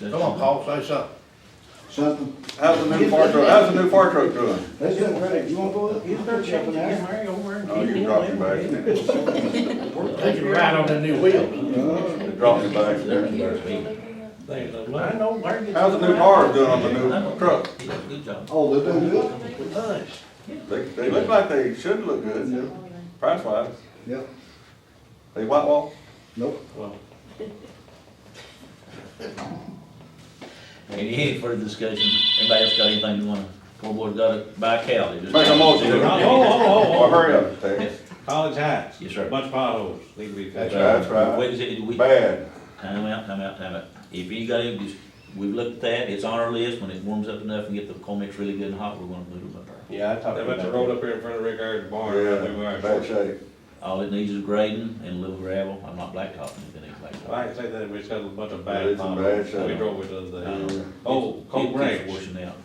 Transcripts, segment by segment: Come on, Paul, say something. Something, How's the new fire truck, how's the new fire truck doing? that's it, right, you wanna go up, you They're can check changing it your out. Mary over and. Oh, you dropped your bags. They can ride on the new wheels. Uh, You dropped your bags. They, well, I know where it is. How's the new cars doing on the new truck? Good job. Oh, they're doing good? Nice. They, they look like they should look good, price wise. Yep, They white wall, nope. Well, Any, any further discussion? Everybody else got anything they wanna, poor boy's got it by Cal. Make make a motion. Oh, oh, Well, oh, hurry up, Tex. oh. College Heights. Yes, sir. Bunch of potholes, need to be That's fixed. right, that's right. Wait, is it, we, time Bad. out, time out, time out. If you got any, dis- we've looked at that, it's on our list, when it warms up enough and get the comments really good and hot, we're gonna move them up there. Yeah, I talked They about went to that. road up here in front of Rick Ayers' barn. We were Oh, Yeah, out bad there. shape. All it needs is grading and a little gravel, I'm not blacktopping, if it ain't blacktop. Like I say that, we just had a bunch of Yeah, bad it's in bad potholes. shape. We drove it the other day. Yeah. Oh, Cold Um, It keeps Ranch, Washing out.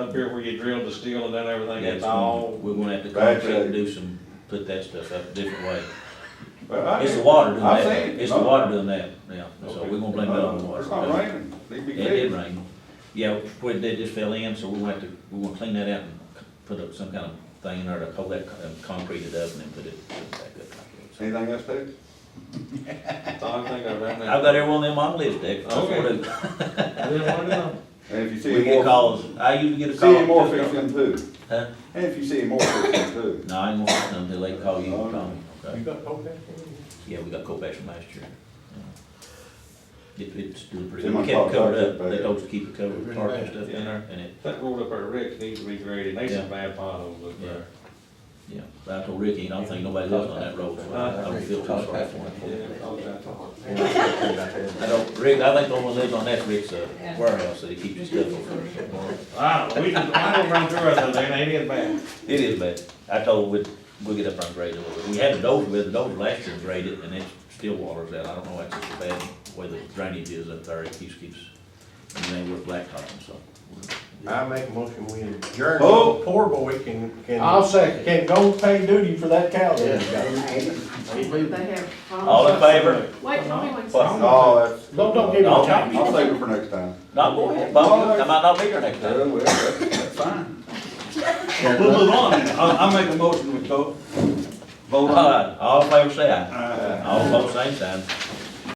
up here where you drilled the steel and done everything, Yeah, it's it's gonna- all, We're gonna have to Bad concrete and shape. do some, put that stuff up a different way. But I- It's the water doing I've that, seen it. it's the No. water doing that, yeah, so we're gonna blame that on the No, water. Uh, It's not raining. They be It did big. rain. Yeah, where they just fell in, so we're gonna have to, we're gonna clean that out and c- put up some kind of thing in there to hold that, con- concrete it up and then put it put it back up. like that. Anything else, Tex? it's all I think I've ever. I've got everyone them on list, Dick. That's what I do. I didn't want to know. And if you see We get more, calls, I usually get a call. see any more too. fixing too. Huh? And if you see any more fixing too. No, I ain't gonna, no, they like call you, Oh, call me, okay? You got Colfax? Yeah, we got Colfax from last year. Yeah. It, it's doing pretty See, good. my We kept it car- covered car- up. They told us to keep it covered, with tarp and stuff Yeah. in there, and it, That road up there, Rick, needs to be graded, they some bad potholes up there. yeah. I told Ricky, I don't think nobody lives on that road, so I I don't feel too sorry for him. Yeah, all that. I don't, Rick, I think the only one lives on that Rick's uh, warehouse, that he keeps his stuff over there. I don't know, Ah, we just, I don't run through it, though, they ain't it bad. It is bad. I told we'd, we'll get up on grade a little bit. We had a dozer, we had a dozer last year graded, and it still waters out. I don't know, that's just a bad way the drainage is up there. It keeps, keeps, and then we're blacktopping, so. I make a motion, we adjourn. Oh. Poor boy can, can, I'll second. can go pay duty for that cow that he got. Don't, They have. All in favor? Wait, hold on one second. Oh, that's. don't give me No. time. I'll save it for next time. No, go ahead, Bob. I might not be here next Yeah, time. well, that's, that's fine. We'll move on now. I'll, I'll make a motion to vote. Vote All on it. right, all in favor, say aye. Aye. All opposed, same sign.